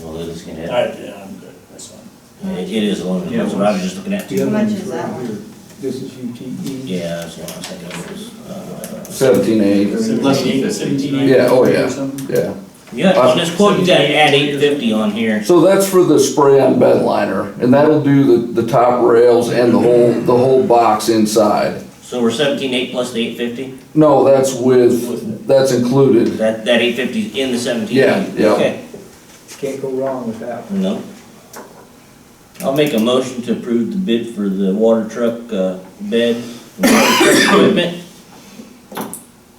Well, Lily's gonna I, have, yeah, I'm good, that's fine. it it is a little, that's what I was just looking at The too. other much one's is that right one? here. This is UTE. Yeah, that's what I was thinking, it was, uh, Seventeen eight, Seventeen, Less than eight- fifty. seventeen, eight yeah, oh fifty or yeah, something? yeah. yeah, on this quote, you gotta add eight fifty on here. So that's for the spray-on bed liner, and that'll do the, the top rails and the whole, the whole box inside. So we're seventeen eight plus the eight fifty? No, that's with, that's included. That, that eight fifty's in the seventeen Yeah, eight? yeah. Okay, Can't go wrong with that. one. no. I'll make a motion to approve the bid for the water truck, uh, bed, and water truck equipment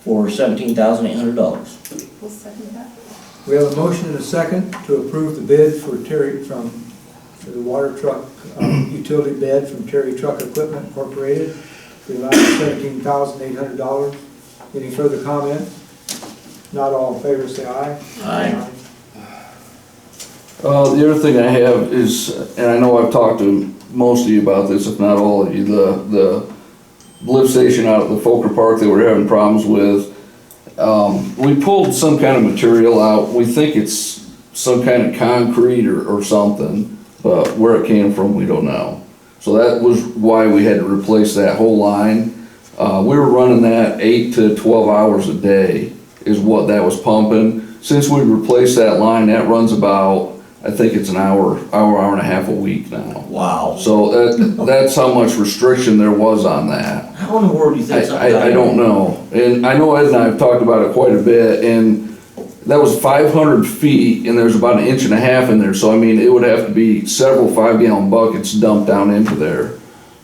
for seventeen thousand eight hundred dollars. We'll second that. We have a motion and a second to approve the bid for Terry from, for the water truck, um, utility bid from Terry Truck Equipment Incorporated for the amount of seventeen thousand eight hundred dollars. Any further comment? Not all in favor, say aye. Aye. Uh, the other thing I have is, and I know I've talked to most of you about this, if not all of you, the, the lift station out at the Folker Park that we're having problems with. Um, we pulled some kind of material out, we think it's some kind of concrete or, or something, but where it came from, we don't know. So that was why we had to replace that whole line. Uh, we were running that eight to twelve hours a day is what that was pumping. Since we replaced that line, that runs about, I think it's an hour, hour, hour and a half a week now. Wow. So that, that's how much restriction there was on that. How in the world do you I, think something? I, I don't know, and I know Ed and I have talked about it quite a bit, and that was five hundred feet, and there's about an inch and a half in there, so I mean, it would have to be several five gallon buckets dumped down into there.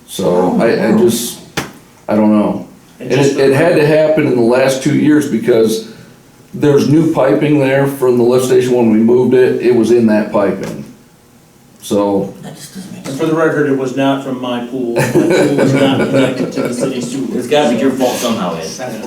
So I, I just, I don't know. And just it, for- it had to happen in the last two years because there's new piping there from the lift station when we moved it, it was in that piping. So, That just doesn't make And sense. for the record, it was not from my pool, my pool is not connected to the city sewer. It's gotta be your fault somehow, Ed.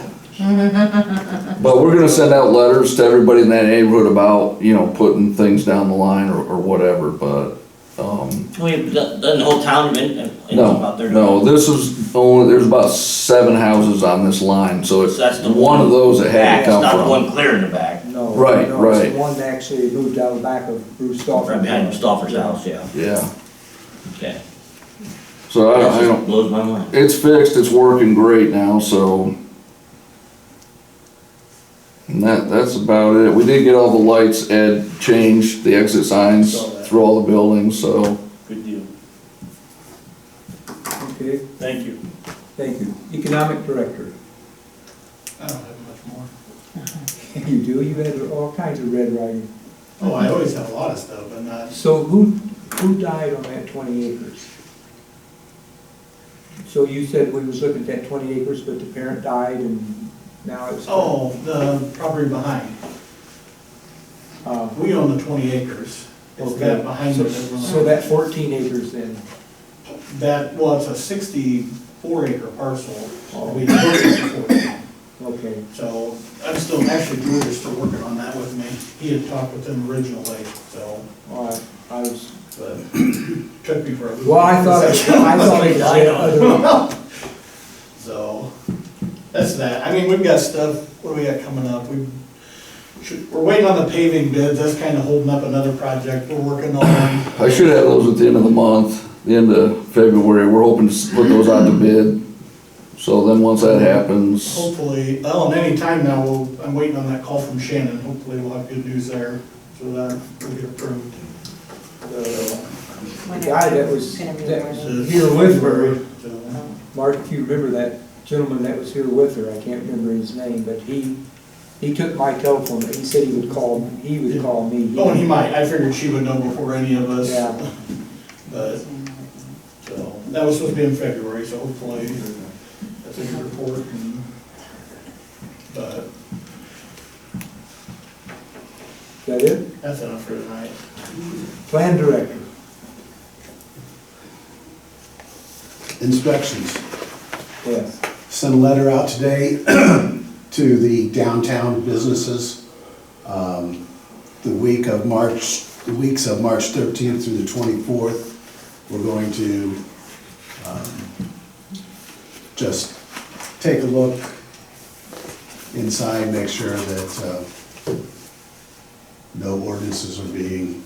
but we're gonna send out letters to everybody in that neighborhood about, you know, putting things down the line or, or whatever, but, um, Wait, doesn't the whole town been, been no, about there? no, this is only, there's about seven houses on this line, so it's So that's the one of those that had Back, to it's not the come one from. clear in the back, No. Right, no, it's the right. One actually moved out of the back of Bruce Stoffer. right behind Stoffer's house, yeah, Yeah, okay. so I don't, That I don't, just blows my mind. It's fixed, it's working great now, so. And that, that's about it. We did get all the lights, Ed changed the exit signs Saw that. through all the buildings, so. Good deal, Okay, thank you. thank you. Economic Director. I don't have much more. You do, you had all kinds of red writing. Oh, I always have a lot of stuff, but not, So who, who died on that twenty acres? So you said we was looking at that twenty acres, but the parent died and now it's. oh, the property behind. Uh, We own the twenty acres. It's that okay. behind So- it. that we're So on. that fourteen acres then, That, well, it's a sixty-four acre parcel. Oh. We purchased it for. okay, So I'm still, actually, Drew is still working on that with me. He had talked with them originally, so, all right, I was, but took me for a. well, I thought, it- I thought it said other, So, that's that. I mean, we've got stuff, what do we got coming up? We should, we're waiting on the paving bids. That's kind of holding up another project we're working on. I should have those at the end of the month, the end of February. We're hoping to s- put those out to bid. So then once that happens, Hopefully, oh, and any time now, we'll, I'm waiting on that call from Shannon. Hopefully we'll have good news there, so that will get approved. the When the guy that it's was, gonna be that more than- was uh, here with her, So, Mark, if you remember that gentleman that was here with her, I can't remember his name, but he, he took my telephone, but he said he would call, he would call me. Oh, and he might. I figured she would know before any of us. Yeah. But, so, that was supposed to be in February, so hopefully that's in your report and, but Is that it? that's enough for tonight. Plan director. inspections. Yes. Sent a letter out today to the downtown businesses um, the week of March, the weeks of March 13th through the 24th. We're going to um, just take a look inside, make sure that uh, no ordinances are being